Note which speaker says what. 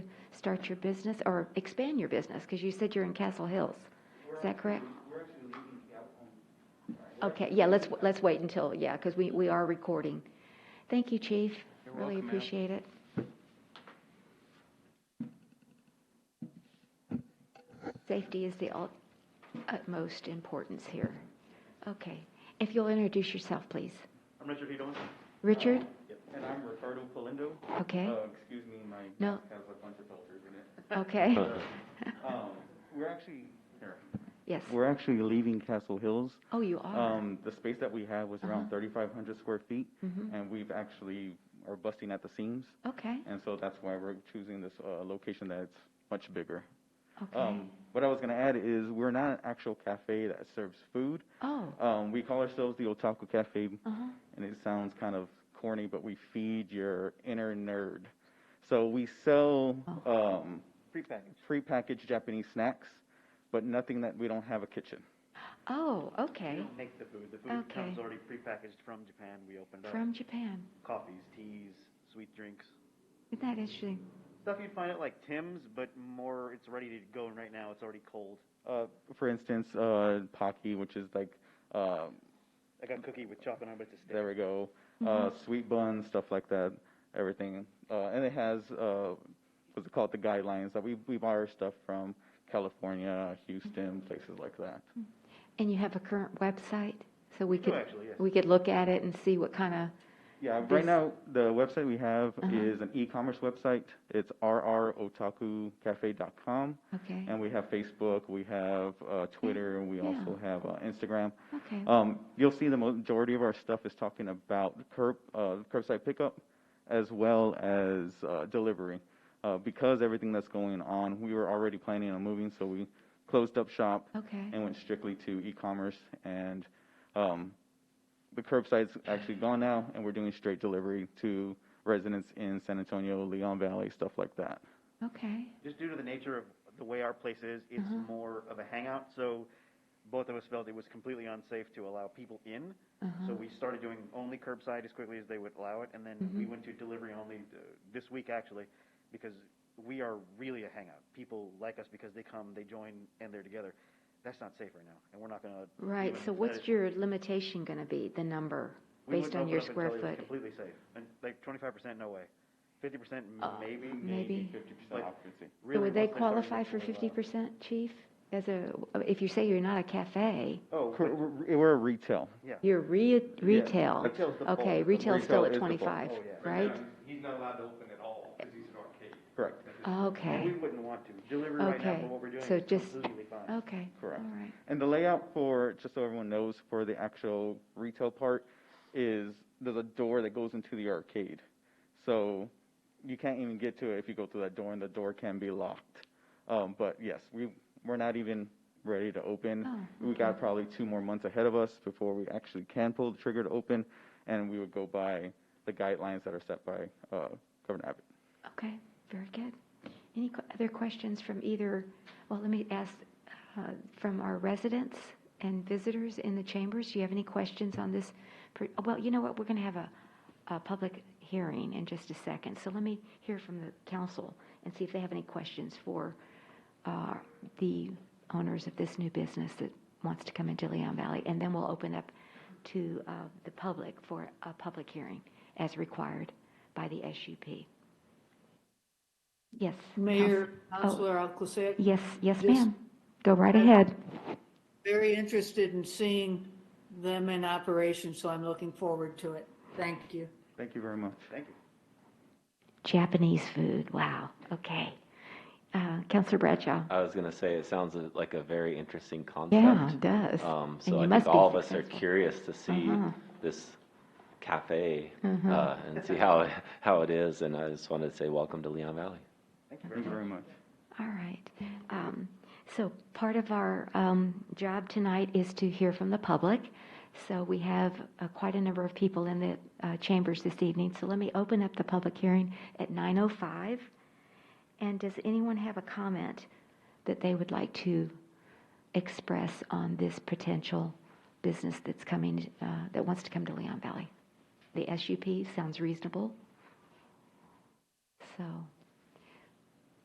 Speaker 1: start your business or expand your business? Because you said you're in Castle Hills. Is that correct?
Speaker 2: We're actually leaving Galveston.
Speaker 1: Okay, yeah, let's, let's wait until, yeah, because we, we are recording. Thank you, Chief.
Speaker 2: You're
Speaker 1: Really
Speaker 2: welcome, ma'am.
Speaker 1: appreciate it. Safety is the ut- utmost importance here. Okay, if you'll introduce yourself, please.
Speaker 2: I'm Richard Hedelman.
Speaker 1: Richard?
Speaker 2: And I'm Ricardo Palindo.
Speaker 1: Okay,
Speaker 2: Uh, excuse me, my
Speaker 1: No.
Speaker 2: mask has a bunch of filters in it.
Speaker 1: okay,
Speaker 2: Uh, Um, we're actually, here.
Speaker 1: yes.
Speaker 2: We're actually leaving Castle Hills.
Speaker 1: Oh, Uh-huh. you are?
Speaker 2: Um, the space that we have was around thirty-five hundred square feet,
Speaker 1: Mhm.
Speaker 2: and we've actually are busting at the seams,
Speaker 1: Okay,
Speaker 2: and so that's why we're choosing this, uh, location that's much bigger.
Speaker 1: okay.
Speaker 2: Um, what I was gonna add is, we're not an actual cafe that serves food.
Speaker 1: Oh,
Speaker 2: Um, we call ourselves the Otaku Cafe
Speaker 1: uh-huh,
Speaker 2: and it sounds kind of corny, but we feed your inner nerd. So we sell um, prepackaged. prepackaged Japanese snacks, but nothing that we don't have a kitchen.
Speaker 1: oh, okay,
Speaker 3: We don't make the food. The food
Speaker 1: Okay.
Speaker 3: comes already prepackaged from Japan. We opened up
Speaker 1: from Japan.
Speaker 3: coffees, teas, sweet drinks.
Speaker 1: Isn't that interesting?
Speaker 3: Stuff you'd find at like Tim's, but more it's ready to go and right now. It's already cold.
Speaker 2: Uh, for instance, uh, Pocky, which is like, uh,
Speaker 3: I got cookie with chocolate on it, but it's a stick.
Speaker 2: there we go, uh, sweet buns, stuff like that, everything. Uh, and it has, uh, what's it called, the guidelines that we, we buy our stuff from California, Houston, places like that.
Speaker 1: And you have a current website, so we
Speaker 3: do
Speaker 1: could,
Speaker 3: Oh, actually, yes.
Speaker 1: we could look at it and see what kind of,
Speaker 2: Yeah,
Speaker 1: This-
Speaker 2: right now, the website we have
Speaker 1: Uh-huh.
Speaker 2: is an e-commerce website. It's rrotakucafe.com.
Speaker 1: okay,
Speaker 2: And we have Facebook, we have uh, Twitter, and we
Speaker 1: Yeah.
Speaker 2: also have uh, Instagram.
Speaker 1: okay,
Speaker 3: uh,
Speaker 2: Um, You'll see the majority of our stuff is talking about curb, uh, curbside pickup as well as uh, delivery. Uh, Because everything that's going on, we were already planning on moving, so we closed up shop
Speaker 1: okay,
Speaker 2: and went strictly to e-commerce and um, the curbside's actually gone now and we're doing straight delivery to residents in San Antonio, Leon Valley, stuff like that.
Speaker 1: okay,
Speaker 3: Just due to the nature of the way our place is, it's
Speaker 1: Uh-huh.
Speaker 3: more of a hangout. So both of us felt it was completely unsafe to allow people in.
Speaker 1: Uh-huh.
Speaker 3: So we started doing only curbside as quickly as they would allow it, and then we
Speaker 1: Mm-hmm.
Speaker 3: went to delivery only uh, this week actually, because we are really a hangout. People like us because they come, they join, and they're together. That's not safe right now, and we're not going to.
Speaker 1: right, so what's your limitation going to be, the number, based on your square foot?
Speaker 3: Completely safe, and like twenty-five percent, no way. Fifty percent,
Speaker 1: Uh,
Speaker 3: maybe.
Speaker 1: Maybe.
Speaker 2: Fifty
Speaker 3: But-
Speaker 2: percent occupancy.
Speaker 1: So
Speaker 3: Really,
Speaker 1: would they
Speaker 3: once start
Speaker 1: qualify for
Speaker 3: looking
Speaker 1: fifty
Speaker 3: allow-
Speaker 1: percent, Chief? As a, if you say you're not a cafe,
Speaker 3: Oh,
Speaker 2: Cor- We're we're retail.
Speaker 1: you're re- retail.
Speaker 3: Retail's the
Speaker 1: Okay,
Speaker 3: bulk.
Speaker 1: retail's still
Speaker 2: Retail
Speaker 1: at
Speaker 2: is the bulk.
Speaker 1: twenty-five,
Speaker 3: Oh, yeah.
Speaker 1: right?
Speaker 4: He's not allowed to open at all because he's an arcade.
Speaker 2: Correct.
Speaker 3: but we
Speaker 1: Okay,
Speaker 3: wouldn't want to. Delivery right now
Speaker 1: Okay.
Speaker 3: for what we're doing
Speaker 1: So
Speaker 3: is
Speaker 1: just- Oh.
Speaker 3: completely fine.
Speaker 1: okay, all
Speaker 2: Correct.
Speaker 1: right,
Speaker 2: And the layout for, just so everyone knows, for the actual retail part is there's a door that goes into the arcade. So you can't even get to it if you go through that door, and the door can be locked. Um, but yes, we, we're not even ready to open.
Speaker 1: Oh,
Speaker 2: We got probably two more months ahead of us before we actually can pull the trigger to open, and we would go by the guidelines that are set by uh, Governor Abbott.
Speaker 1: okay, very good. Any que- other questions from either, well, let me ask, uh, from our residents and visitors in the chambers? Do you have any questions on this? per- Well, you know what, we're going to have a, a public hearing in just a second, so let me hear from the council and see if they have any questions for uh, the owners of this new business that wants to come into Leon Valley, and then we'll open up to uh, the public for a public hearing as required by the SUP. Yes. Council-
Speaker 5: Mayor,
Speaker 1: oh,
Speaker 5: Councilor Alcocer,
Speaker 1: Yes, yes,
Speaker 5: Just-
Speaker 1: ma'am. Go right ahead.
Speaker 5: very interested in seeing them in operation, so I'm looking forward to it. Thank you.
Speaker 2: Thank you very much.
Speaker 3: Thank you.
Speaker 1: Japanese food, wow, okay. Uh, Counselor Bradshaw?
Speaker 6: I was going to say, it sounds a- like a very interesting concept.
Speaker 1: Yeah, it does.
Speaker 6: Um,
Speaker 1: And
Speaker 6: so
Speaker 1: you
Speaker 6: I
Speaker 1: must
Speaker 6: think
Speaker 1: be
Speaker 6: all of us are
Speaker 1: successful.
Speaker 6: curious to see
Speaker 1: Uh-huh. Mm-hmm.
Speaker 6: this cafe uh, and see how how it is. And I just wanted to say, welcome to Leon Valley.
Speaker 2: Thank you very much.
Speaker 1: All right. Um, So part of our um, job tonight is to hear from the public. So we have uh, quite a number of people in the uh, chambers this evening. So let me open up the public hearing at 9:05. And does anyone have a comment that they would like to express on this potential business that's coming, uh, that wants to come to Leon Valley? The SUP sounds reasonable. So